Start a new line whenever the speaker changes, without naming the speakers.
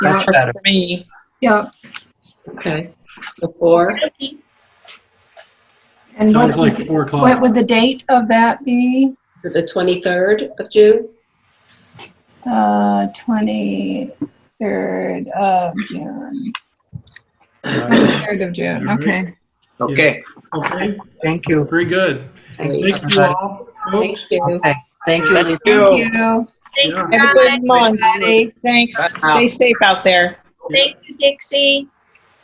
Yeah,
Much better.
for me.
yeah.
Okay. The four,
And
Sounds
what,
like uh, four
what
o'clock.
would the date of that be?
is it the 23rd of June?
Uh, 23rd of June.
Right.
23rd of June,
All right.
okay.
Okay,
Okay,
Thank you.
very good.
Thank
Thank you all, folks.
you.
Okay. Thank you,
Thank
Lisa.
you.
Thank you,
Thank you,
Yeah.
Have a
guys.
good month.
everybody.
Thanks.
Bye now.
Stay safe out there.
Thank you, Dixie.